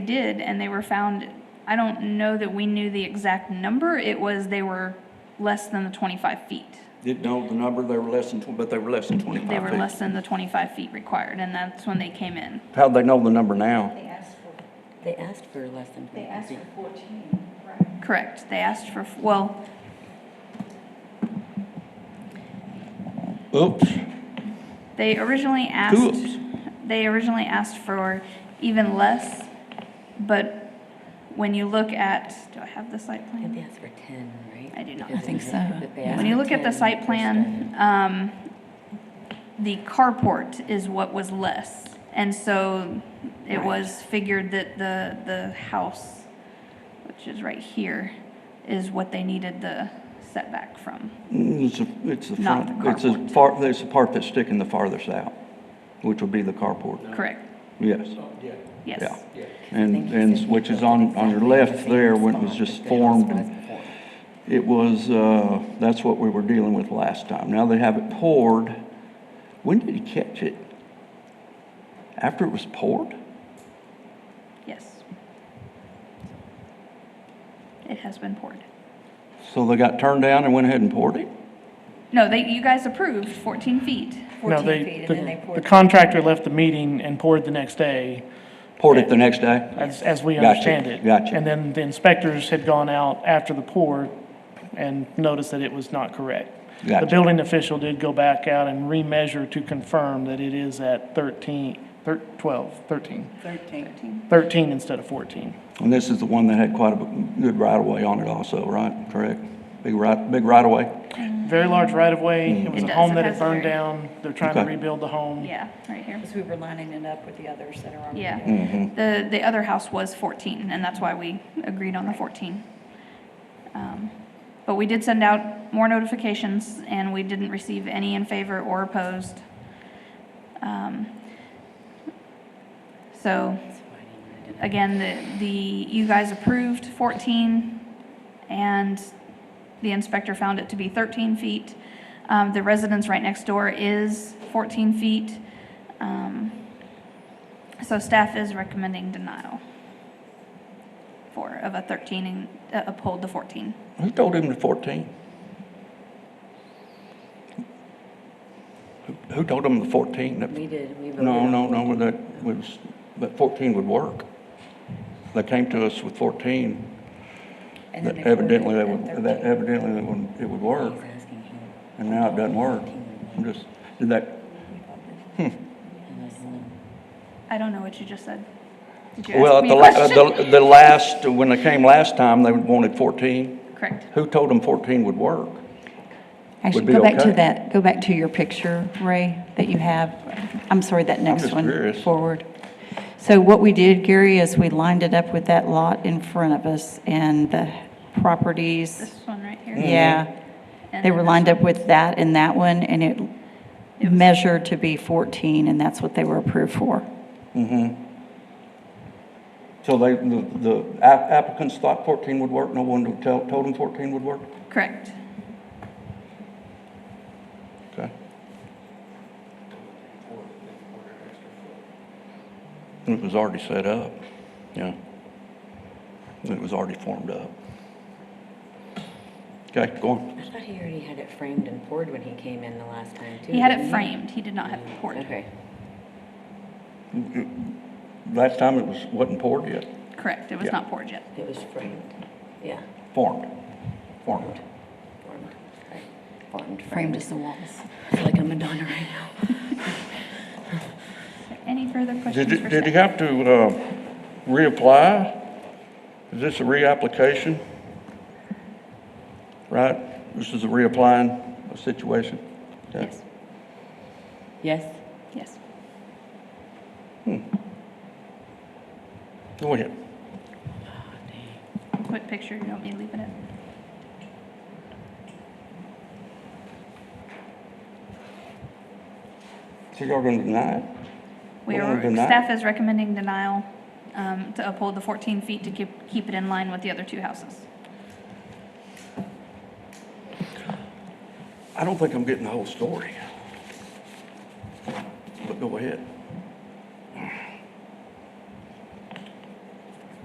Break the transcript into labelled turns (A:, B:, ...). A: did, and they were found, I don't know that we knew the exact number, it was they were less than the 25 feet.
B: Didn't know the number, they were less than, tw- but they were less than 25 feet.
A: They were less than the 25 feet required, and that's when they came in.
B: How'd they know the number now?
C: They asked for,
D: They asked for less than
C: they
D: twenty-five
C: asked
D: feet.
C: for fourteen, right?
A: Correct, they asked for, well,
B: Oops.
A: they originally asked,
B: Oops.
A: they originally asked for even less, but when you look at, do I have the site
D: I think they
A: plan?
D: asked for ten, right?
A: I do not.
D: Because
A: I
D: it
E: think so.
D: was- but they
A: When
D: asked
A: you
D: for
A: look at the
D: 10
A: site
D: first
A: plan, um, the carport is what was less. And so it was figured that the, the house, which is right here, is what they needed the setback from.
B: It's a- it's the
A: Not
B: front,
A: the
B: it's the
A: carport.
B: far, it's the part that's sticking the farthest out, which would be the carport.
A: Correct,
B: Yes, yeah.
A: yes.
D: started. I
B: And,
D: think he said
B: and
D: he
B: which is
D: built it
B: on, on your
D: exactly the
B: left
D: same
B: there, when it was
D: spot
B: just
D: that the house
B: formed.
D: was
B: and
D: before.
B: It was, uh, that's what we were dealing with last time. Now they have it poured. When did you catch it? After it was poured?
A: Yes. It has been poured.
B: So they got turned down and went ahead and poured it?
A: No, they, you guys approved 14 feet.
F: No,
C: 14 feet,
F: they,
C: and then they
F: the- the
C: poured-
F: contractor left the meeting and poured the next day,
B: Poured it the next day?
F: as, as we
B: Gotcha,
F: understand it.
B: gotcha.
F: And then the inspectors had gone out after the pour and noticed that it was not correct. The
B: Gotcha.
F: building official did go back out and remeasure to confirm that it is at 13, thir- 12, 13,
A: 13.
F: 13 instead of 14.
B: And this is the one that had quite a good right-of-way on it also, right? Correct? Big right, big right-of-way?
F: Very large right-of-way. It was
A: It
F: a
A: does,
F: home
A: it
F: that
A: has
F: had
A: a
F: burned
A: very-
F: down. They're trying to
B: Mm-hmm. Okay.
F: rebuild the home.
A: Yeah, right here.
C: Because we were lining it up with the others that are on. the
A: Yeah.
C: bill.
A: The, the other house was 14, and that's why we agreed on the 14. Um, But we did send out more notifications, and we didn't receive any in favor or opposed. Um, So,
D: That's why I didn't write it down.
A: again, the, the, you guys approved 14, and the inspector found it to be 13 feet. Um, The residence right next door is 14 feet. Um, So staff is recommending denial for, of a 13 and uh, uphold the 14.
B: Who told him to fourteen? Who- Who told him the fourteen? That-
D: We did, we voted.
B: No,
D: on
B: no, no,
D: 14.
B: that was, but fourteen would work. They came to us with fourteen,
C: And then
B: that
C: they poured it
B: evidently, they
C: at
B: would,
C: 13.
B: that evidently it would, it would work,
D: He's asking him.
B: and now it doesn't work. I'm just, did that,
D: And I don't know.
A: I don't know what you just said. Did you
B: well,
A: ask
B: at
A: me
B: the,
A: a
B: la- at
A: question?
B: the, the last, when they came last time, they wanted fourteen.
A: Correct.
B: Who told them fourteen would work?
E: Actually,
B: be
E: go back
B: okay.
E: to that, go back to your picture, Ray, that you have. I'm sorry, that next
B: just
E: one
B: curious.
E: forward. So what we did, Gary, is we lined it up with that lot in front of us and the
A: This
E: properties.
A: one right here.
E: Yeah.
A: And
E: They
A: then
E: were
A: this
E: lined up with that and that one, and it measured to be 14, and that's what they were approved for.
B: So they, the, the app- applicants thought fourteen would work, no one would tell, told them fourteen would work?
A: one. Correct.
B: Okay. And It was already set up, yeah. It was already formed up. Okay, go on.
D: I thought he already had it framed and poured when he came in the last time, too.
A: He had
D: didn't
A: it framed, he did not have it poured.
D: Okay.
B: Last time it was, wasn't poured yet,
A: Correct, it was
B: Yeah.
A: not poured yet.
D: It was framed, yeah,
B: formed, formed.
D: formed, right, formed.
E: Framed as the walls.
D: I feel like a Madonna right now.
A: Any further
B: Did,
A: questions
B: you-
A: for
B: did you
A: staff?
B: have to, uh, reapply? Is this a reapplication? Right, this is a reapplying situation? Okay.
A: Yes,
D: Yes?
A: yes.
B: Go ahead.
A: Quick picture, you want me to leave it in?
B: So y'all gonna deny it?
A: We
B: Well,
A: are,
B: then that-
A: staff is recommending denial um, to uphold the 14 feet to keep, keep it in line with the other two houses.
B: I don't think I'm getting the whole story. But go ahead.